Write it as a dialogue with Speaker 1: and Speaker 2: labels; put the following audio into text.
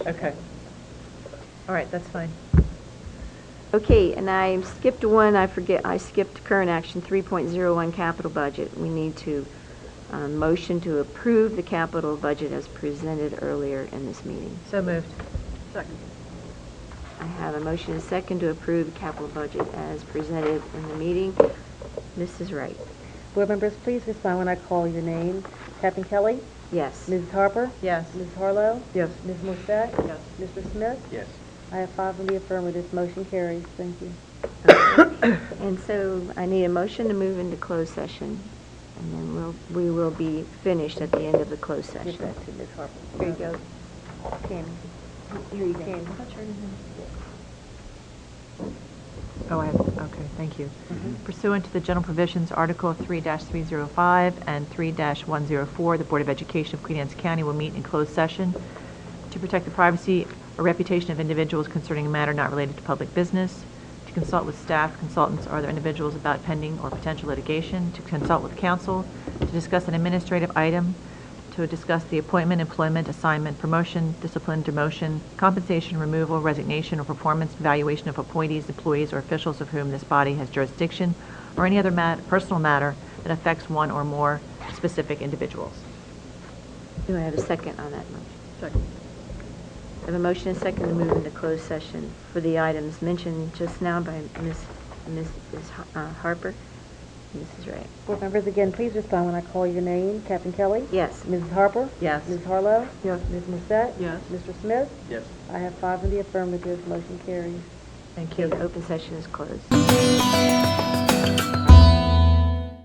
Speaker 1: Okay. All right, that's fine.
Speaker 2: Okay, and I skipped one, I forget, I skipped current action 3.01 capital budget. We need to um, motion to approve the capital budget as presented earlier in this meeting.
Speaker 1: So moved.
Speaker 3: Second.
Speaker 2: I have a motion and a second to approve the capital budget as presented in the meeting. Mrs. Wright?
Speaker 4: Board members, please respond when I call your name. Captain Kelly?
Speaker 2: Yes.
Speaker 4: Mrs. Harper?
Speaker 1: Yes.
Speaker 4: Mrs. Harlow?
Speaker 1: Yes.
Speaker 4: Ms. Morset?
Speaker 1: Yes.
Speaker 4: Mr. Smith?
Speaker 5: Yes.
Speaker 4: I have five in the affirmative. Motion carries. Thank you.
Speaker 2: And so I need a motion to move into closed session, and then we'll, we will be finished at the end of the closed
Speaker 4: Give
Speaker 2: session.
Speaker 4: that to Ms. Harper.
Speaker 2: Here you go.
Speaker 4: Tammy.
Speaker 2: Here you
Speaker 4: Tammy.
Speaker 1: Oh, I have, okay, thank you.
Speaker 4: Mm-hmm.
Speaker 1: Pursuant to the general provisions, Article 3-305 and 3-104, the Board of Education of Queen Anne's County will meet in closed session to protect the privacy or reputation of individuals concerning a matter not related to public business, to consult with staff, consultants, or other individuals about pending or potential litigation, to consult with counsel, to discuss an administrative item, to discuss the appointment, employment, assignment, promotion, discipline, demotion, compensation, removal, resignation, or performance evaluation of appointees, employees, or officials of whom this body has jurisdiction, or any other mat, personal matter that affects one or more specific individuals.
Speaker 2: Do I have a second on that motion?
Speaker 3: Second.
Speaker 2: I have a motion and second to move into closed session for the items mentioned just now by Ms. Mrs. Har- uh, Harper, Mrs. Ray.
Speaker 4: Board members, again, please respond when I call your name. Captain Kelly?
Speaker 2: Yes.
Speaker 4: Mrs. Harper?
Speaker 1: Yes.
Speaker 4: Ms. Harlow?
Speaker 1: Yes.
Speaker 4: Ms. Morset?
Speaker 3: Yes.
Speaker 4: Mr. Smith?
Speaker 5: Yes.
Speaker 4: I have five in the affirmative. Motion carries.
Speaker 1: Thank
Speaker 2: Okay, the open session is closed.